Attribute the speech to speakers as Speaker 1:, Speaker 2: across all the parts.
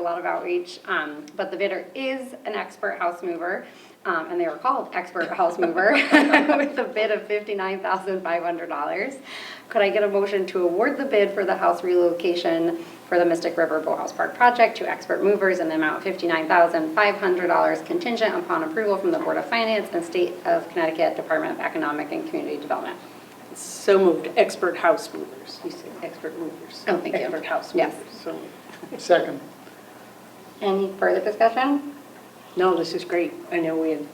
Speaker 1: a lot of outreach, um, but the bidder is an expert house mover, um, and they were called expert house mover with a bid of fifty-nine thousand five hundred dollars. Could I get a motion to award the bid for the house relocation for the Mystic River Boathouse Park project to expert movers in the amount of fifty-nine thousand five hundred dollars contingent upon approval from the Board of Finance and State of Connecticut Department of Economic and Community Development?
Speaker 2: So moved, expert house movers, you said expert movers.
Speaker 1: Oh, thank you.
Speaker 2: Expert house
Speaker 1: Yes.
Speaker 2: movers, so.
Speaker 3: Second.
Speaker 1: Any further discussion?
Speaker 2: No, this is great. I know we had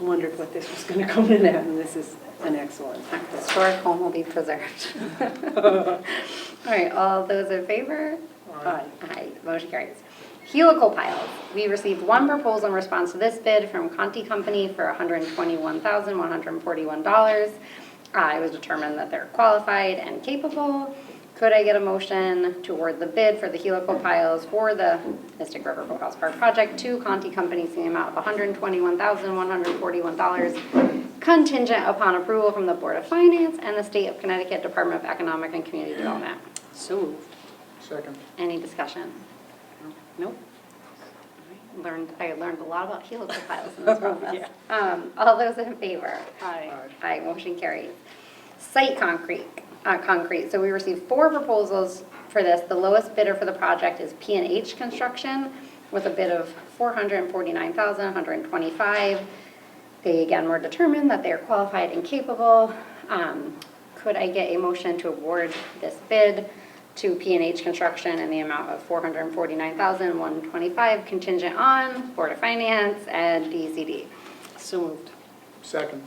Speaker 2: wondered what this was going to come in at, and this is an excellent.
Speaker 1: Historic home will be preserved. All right, all those in favor?
Speaker 2: Aye.
Speaker 1: Aye, motion carries. Helical piles, we received one proposal in response to this bid from Conti Company for $121,141. Uh, It was determined that they're qualified and capable. Could I get a motion to award the bid for the helical piles for the Mystic River Boathouse Park project to Conti Company in the amount of $121,141 contingent upon approval from the Board of Finance and the State of Connecticut Department of Economic and Community Development?
Speaker 2: So moved.
Speaker 3: Second.
Speaker 1: Any discussion?
Speaker 2: Nope.
Speaker 1: Learned, I learned a lot about helical piles in this process.
Speaker 2: Yeah.
Speaker 1: Um, all those in favor?
Speaker 2: Aye.
Speaker 1: Aye, motion carries. Site concrete, uh, concrete, so we received four proposals for this. The lowest bidder for the project is P and H Construction with a bid of four hundred and forty-nine thousand, one hundred and twenty-five. They again were determined that they are qualified and capable. Um, could I get a motion to award this bid to P and H Construction in the amount of four hundred and forty-nine thousand, one twenty-five contingent on Board of Finance and DCD?
Speaker 2: So moved.
Speaker 3: Second.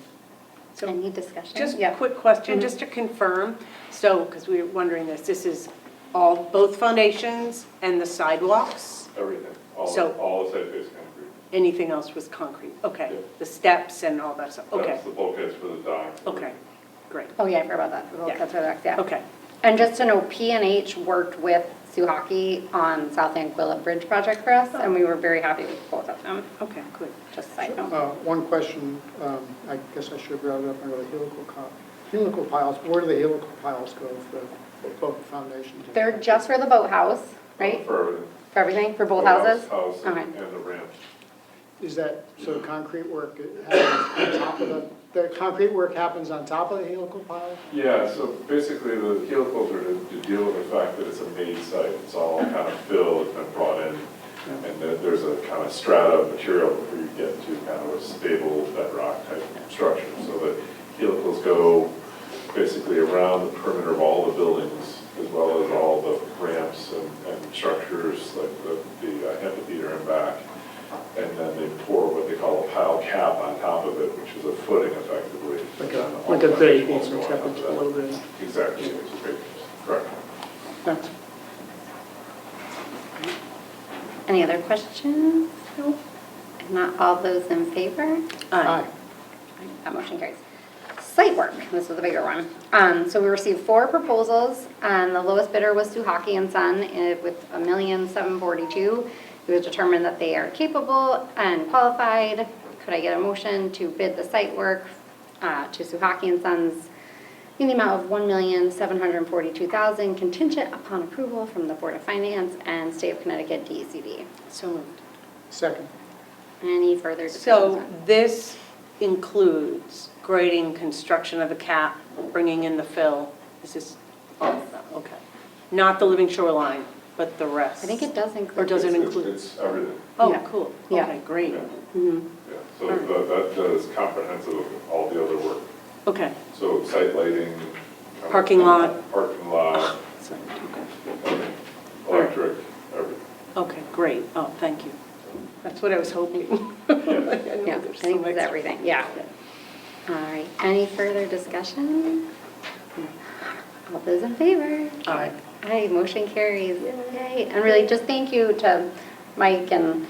Speaker 2: So-
Speaker 1: Any discussion?
Speaker 2: Just
Speaker 1: Yeah. Mm-hmm.
Speaker 2: a quick question, just to confirm, so, because we were wondering this, this is all, both foundations and the sidewalks?
Speaker 4: Everything, all,
Speaker 2: So-
Speaker 4: all the site face concrete.
Speaker 2: Anything else was concrete? Okay,
Speaker 4: Yeah.
Speaker 2: the steps and all that stuff, okay,
Speaker 4: That's the bulkheads for the dock. Uh,
Speaker 2: okay, great,
Speaker 1: Oh, yeah, I forgot about that, the Little
Speaker 2: Yeah.
Speaker 1: Cats for the Dogs, yeah.
Speaker 2: okay.
Speaker 1: And just to know, P and H worked with Suhaki on South Anguilla Bridge project for us, and we were very happy with both of them,
Speaker 2: Okay, good.
Speaker 1: just a side note.
Speaker 3: Uh, One question, um, I guess I should have brought it up under the helical co- helical piles. Where do the helical piles go for for both foundations?
Speaker 1: They're just for the boathouse, right?
Speaker 4: For everything.
Speaker 1: For everything, for both
Speaker 4: Boathouse,
Speaker 1: houses?
Speaker 4: House
Speaker 1: Okay.
Speaker 4: and and the ramp.
Speaker 3: Is that, so concrete work happens on top of the, the concrete work happens on top of the helical pile?
Speaker 4: Yeah, so basically the helicals are to to deal with the fact that it's a made site, it's all kind of filled, it's been brought in. And that there's a kind of strata of material before you get to kind of a stable bedrock type structure. So the helicals go basically around the perimeter of all the buildings as well as all the ramps and, and structures like the, the uh, amphitheater and back. And then they pour what they call a pile cap on top of it, which is a footing effectively.
Speaker 3: Like
Speaker 4: And
Speaker 3: a,
Speaker 4: all
Speaker 3: like a
Speaker 4: kinds of
Speaker 3: grate,
Speaker 4: walls go on
Speaker 3: except
Speaker 4: top
Speaker 3: it's
Speaker 4: of
Speaker 3: a
Speaker 4: that.
Speaker 3: little bit.
Speaker 4: Exactly, it's a great, correct.
Speaker 3: Thanks.
Speaker 1: Any other questions? No. If Not all those in favor?
Speaker 3: Aye.
Speaker 1: That motion carries. Site work, this was a bigger one. Um, so we received four proposals, and the lowest bidder was Suhaki and Son eh, with a million seven forty-two. It was determined that they are capable and qualified. Could I get a motion to bid the site work, uh, to Suhaki and Sons in the amount of one million seven hundred and forty-two thousand contingent upon approval from the Board of Finance and State of Connecticut E DECD?
Speaker 2: So moved.
Speaker 3: Second.
Speaker 1: Any further discussion?
Speaker 2: So this includes grading, construction of the cap, bringing in the fill, this is all of that, okay. Not the living shoreline, but the rest.
Speaker 1: I think it does include.
Speaker 2: Or does it
Speaker 4: It's-
Speaker 2: include-
Speaker 4: It's everything,
Speaker 2: Oh,
Speaker 1: Yeah.
Speaker 2: cool,
Speaker 1: Yeah.
Speaker 2: okay, great.
Speaker 4: Yeah.
Speaker 1: mm-hmm.
Speaker 2: Mhm.
Speaker 4: yeah. So that, that does comprehensive of all the other work.
Speaker 2: Okay,
Speaker 4: So site lighting. kind of-
Speaker 2: Parking lot.
Speaker 4: Parking lot,
Speaker 2: so, okay.
Speaker 4: electric, everything.
Speaker 2: okay, great, oh, thank you. That's what I was hoping.
Speaker 1: Yeah, I think it's everything, yeah. All right, any further discussion? All those in favor?
Speaker 2: Aye.
Speaker 1: Aye, motion carries. Yay. And really, just thank you to Mike and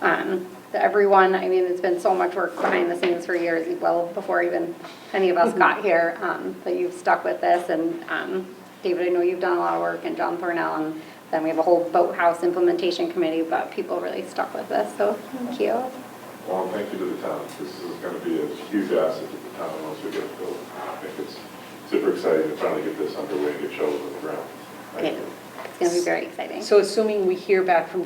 Speaker 1: um, to everyone. I mean, it's been so much work behind the scenes for years, well, before even any of us got here, um, that you've stuck with this. And um, David, I know you've done a lot of work, and John Thornell, and then we have a whole boathouse implementation committee, but people really stuck with us, so thank you.
Speaker 4: Well, thank you to the town. This is going to be a huge asset to the town once we get it built. I think it's super exciting to finally get this underway and get shovels in the ground. Thank
Speaker 1: It's
Speaker 4: you.
Speaker 1: going to be very exciting.
Speaker 2: So assuming we hear back from